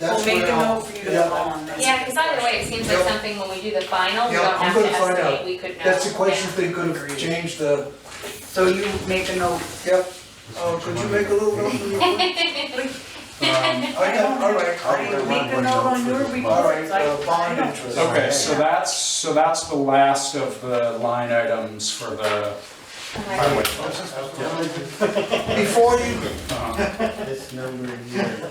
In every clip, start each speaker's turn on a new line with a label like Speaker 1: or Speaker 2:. Speaker 1: We'll
Speaker 2: That's
Speaker 1: make
Speaker 2: where
Speaker 1: a
Speaker 2: I'll-
Speaker 1: note for you to
Speaker 2: yeah,
Speaker 1: go on that.
Speaker 3: Yeah, because either way, it seems like
Speaker 2: Yeah.
Speaker 3: something when we do the final, we
Speaker 2: Yeah,
Speaker 3: don't
Speaker 2: I'm
Speaker 3: have to
Speaker 2: gonna find
Speaker 3: estimate,
Speaker 2: out.
Speaker 3: we could know.
Speaker 2: That's the question,
Speaker 3: Yeah.
Speaker 2: they could have changed the,
Speaker 1: So you make a note,
Speaker 2: yep, oh, could you make a little note for me?
Speaker 4: Um,
Speaker 2: I got, all right,
Speaker 1: Are you
Speaker 2: I'll-
Speaker 1: make a note on your
Speaker 2: all
Speaker 1: reports,
Speaker 2: right,
Speaker 1: I,
Speaker 2: uh,
Speaker 1: I
Speaker 2: bond
Speaker 1: don't.
Speaker 2: interest.
Speaker 4: Okay, so that's, so that's the last of the line items for the
Speaker 3: Okay.
Speaker 4: highway.
Speaker 2: Before you,
Speaker 4: Um,
Speaker 5: This number here,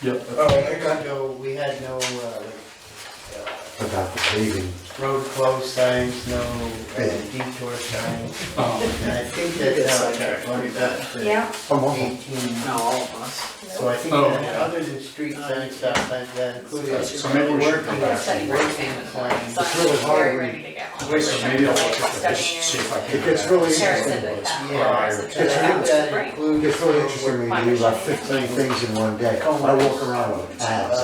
Speaker 4: Yep,
Speaker 2: oh, I
Speaker 5: we
Speaker 2: got,
Speaker 5: had no, we had no, uh, like,
Speaker 6: about the paving.
Speaker 5: uh, road close signs, no uh, detour signs.
Speaker 4: um,
Speaker 5: And I think uh, that's how it got bumped up to
Speaker 1: Yeah,
Speaker 5: eighteen.
Speaker 1: no, all of us.
Speaker 5: So I think
Speaker 4: Oh,
Speaker 5: that
Speaker 4: yeah.
Speaker 5: other than street signs, stop signs, that included.
Speaker 4: So maybe we should go back.
Speaker 5: Working, working
Speaker 3: So
Speaker 5: plan.
Speaker 3: I'm
Speaker 6: really
Speaker 3: very
Speaker 6: hard.
Speaker 3: ready to get home.
Speaker 4: wait, so maybe I'll look at
Speaker 3: Studying
Speaker 4: this, see if I can.
Speaker 6: It gets really
Speaker 3: Sarah said that
Speaker 6: interesting.
Speaker 3: that
Speaker 5: Yeah.
Speaker 3: was uh, the
Speaker 5: And I think
Speaker 3: best
Speaker 5: that uh,
Speaker 3: brain.
Speaker 5: included.
Speaker 6: It's really interesting when you do about fifteen things in one day. I walk around with paths.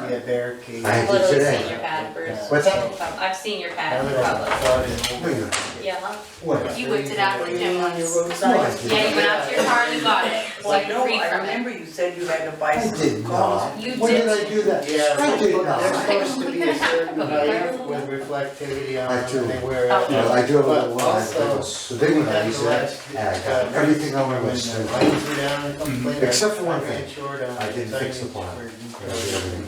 Speaker 5: uh, Yeah, barricades.
Speaker 6: I-
Speaker 3: I've literally
Speaker 6: today.
Speaker 3: seen your pad, Bruce.
Speaker 6: What's that?
Speaker 3: I've seen your pad
Speaker 5: Now
Speaker 3: in
Speaker 5: that I've
Speaker 3: public.
Speaker 5: thought it over.
Speaker 6: Wait a minute,
Speaker 3: Yeah,
Speaker 6: What?
Speaker 3: you whipped it out with Jim once.
Speaker 6: No, I didn't.
Speaker 3: Yeah, you went out to your car and you got it, It's like
Speaker 1: Well, no,
Speaker 3: free
Speaker 1: I
Speaker 3: from it.
Speaker 1: remember you said you had to buy
Speaker 6: I
Speaker 1: some
Speaker 6: did
Speaker 1: cars.
Speaker 6: not.
Speaker 3: You
Speaker 6: When did
Speaker 3: did.
Speaker 6: I do that?
Speaker 5: Yeah,
Speaker 6: I did
Speaker 5: they're
Speaker 6: not.
Speaker 5: supposed to be a certain height with reflectivity on
Speaker 6: I do.
Speaker 5: them, they wear
Speaker 3: Oh.
Speaker 5: out.
Speaker 6: Well, I do have a little
Speaker 5: But
Speaker 6: one, I
Speaker 5: also,
Speaker 6: think. the big one I use that, and I got uh, everything on my
Speaker 5: When
Speaker 6: list.
Speaker 5: the
Speaker 6: and I
Speaker 5: lights were down a couple later,
Speaker 6: Except for one
Speaker 5: I ran
Speaker 6: thing.
Speaker 5: short on
Speaker 6: I didn't fix the
Speaker 5: signage
Speaker 6: plan.
Speaker 5: for
Speaker 6: did
Speaker 5: details.
Speaker 6: everything.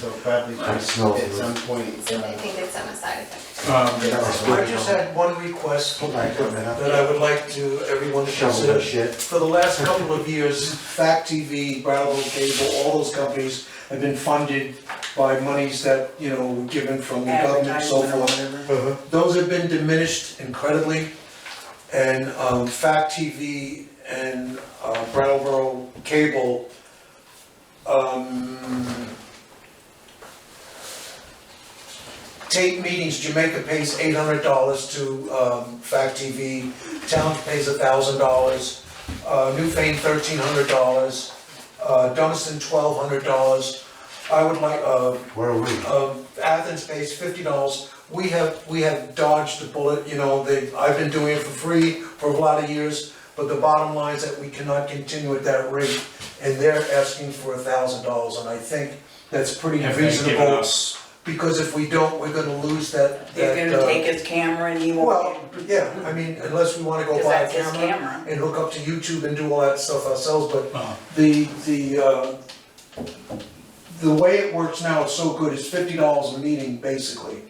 Speaker 5: So probably
Speaker 6: I smelled
Speaker 5: at
Speaker 6: it.
Speaker 5: some point,
Speaker 3: So I
Speaker 5: uh,
Speaker 3: think it's on the side effect.
Speaker 4: Um,
Speaker 6: That was
Speaker 2: I just had one request
Speaker 6: Put my equipment up.
Speaker 2: that I would like to, everyone to
Speaker 6: Shovel
Speaker 2: consider.
Speaker 6: and shit.
Speaker 2: For the last couple of years, Fact TV, Bravo Cable, all those companies have been funded by monies that, you know, were given from the government and so
Speaker 1: Advertisement or
Speaker 2: forth.
Speaker 1: whatever.
Speaker 2: Those have been diminished incredibly, and um, Fact TV and uh, Brattleboro Cable, um, tape meetings, Jamaica pays eight hundred dollars to um, Fact TV, Towns pays a thousand dollars, Newfane thirteen hundred dollars, Dunston twelve hundred dollars. I would like, uh,
Speaker 6: Where are we?
Speaker 2: um, Athens pays fifty dollars, we have, we have dodged the bullet, you know, they, I've been doing it for free for a lot of years, but the bottom line is that we cannot continue at that rate, and they're asking for a thousand dollars, and I think that's pretty
Speaker 4: Have they given
Speaker 2: reasonable,
Speaker 4: us,
Speaker 2: because if we don't, we're gonna lose that, that,
Speaker 1: They're gonna
Speaker 2: uh,
Speaker 1: take his camera and he won't,
Speaker 2: Well, yeah, I mean, unless we wanna go
Speaker 1: because
Speaker 2: buy a
Speaker 1: that's his
Speaker 2: camera
Speaker 1: camera.
Speaker 2: and hook up to YouTube and do all that stuff ourselves, but
Speaker 4: uh,
Speaker 2: the, the, uh, the way it works now, it's so good, it's fifty dollars a meeting, basically.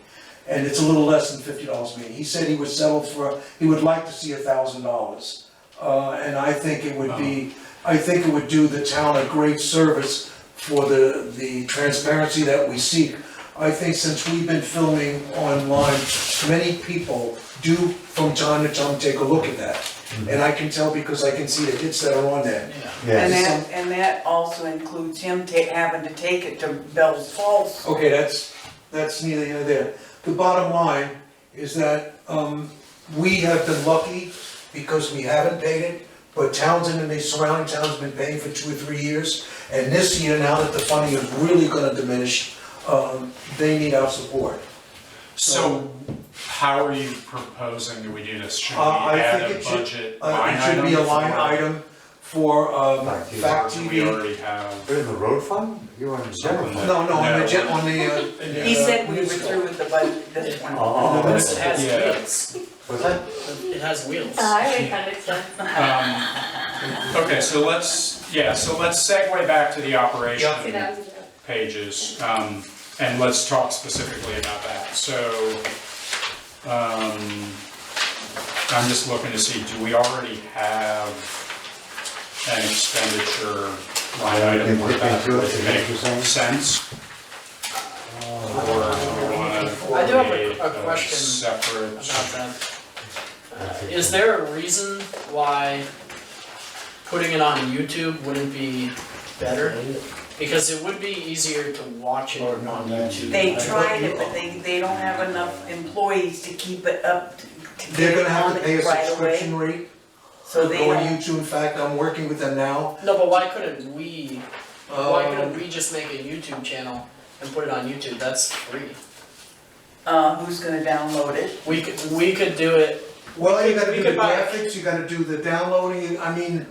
Speaker 2: And it's a little less than fifty dollars a meeting. He said he would settle for, he would like to see a thousand dollars. Uh, and I think it would be, I think it would do the town a great service for the, the transparency that we seek. I think since we've been filming online, many people do from time to time take a look at that. And I can tell because I can see the hits that are on there.
Speaker 1: And
Speaker 6: Yes.
Speaker 1: that, and that also includes him ta- having to take it to Bell's Falls.
Speaker 2: Okay, that's, that's neither here nor there. The bottom line is that, um, we have been lucky because we haven't paid it, but Townsend and the surrounding towns have been paying for two or three years. And this year, now that the funding is really gonna diminish, um, they need our support.
Speaker 4: so how are you proposing that we do this? Should we
Speaker 2: Uh, I
Speaker 4: add
Speaker 2: think
Speaker 4: a
Speaker 2: it should-
Speaker 4: budget
Speaker 2: Uh,
Speaker 4: line
Speaker 2: it
Speaker 4: item?
Speaker 2: should be a line
Speaker 4: for-
Speaker 2: item for, um,
Speaker 6: Fact TV.
Speaker 4: Or
Speaker 2: Fact
Speaker 4: do we
Speaker 2: TV.
Speaker 4: already have?
Speaker 6: We're in the road fund? You're on the general fund.
Speaker 2: No, no, on the, gen- on the, uh, in the,
Speaker 1: He
Speaker 2: uh,
Speaker 1: said we were
Speaker 2: news-
Speaker 1: through with the budget this one.
Speaker 6: Oh,
Speaker 2: No,
Speaker 6: that's-
Speaker 7: It has
Speaker 4: Yeah.
Speaker 7: wheels.
Speaker 6: was that?
Speaker 7: It has wheels.
Speaker 3: Highway funded stuff.
Speaker 4: Um, Okay, so let's, yeah, so let's segue back to the
Speaker 3: See,
Speaker 4: operation
Speaker 3: that was a joke.
Speaker 4: pages, um, and let's talk specifically about that. So, um, I'm just looking to see, do we already have an expenditure line item where that would make sense? Or do we wanna
Speaker 7: I do have a- a
Speaker 4: create
Speaker 7: question
Speaker 4: separate?
Speaker 7: About that. Uh, Is there a reason why putting it on YouTube wouldn't be better? Because it would be easier to watch it
Speaker 5: Or
Speaker 7: on
Speaker 5: not.
Speaker 7: YouTube.
Speaker 1: They tried it, but they, they don't have enough employees to keep it up, to to
Speaker 2: They're
Speaker 1: get it
Speaker 2: gonna have
Speaker 1: on
Speaker 2: to pay a
Speaker 1: it right away.
Speaker 2: subscription rate.
Speaker 1: So they
Speaker 2: Go on
Speaker 1: don't,
Speaker 2: YouTube, in fact, I'm working with them now.
Speaker 7: No, but why couldn't we, why couldn't
Speaker 2: Um,
Speaker 7: we just make a YouTube channel and put it on YouTube? That's free.
Speaker 1: uh, who's gonna download it?
Speaker 7: We could, we could do it,
Speaker 2: Well, you gotta
Speaker 7: we
Speaker 2: do the
Speaker 7: could buy-
Speaker 2: graphics, you gotta do the downloading, I mean,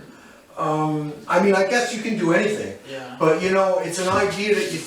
Speaker 2: Um, I mean, I guess you can do anything,
Speaker 7: yeah.
Speaker 2: but you know, it's an idea that you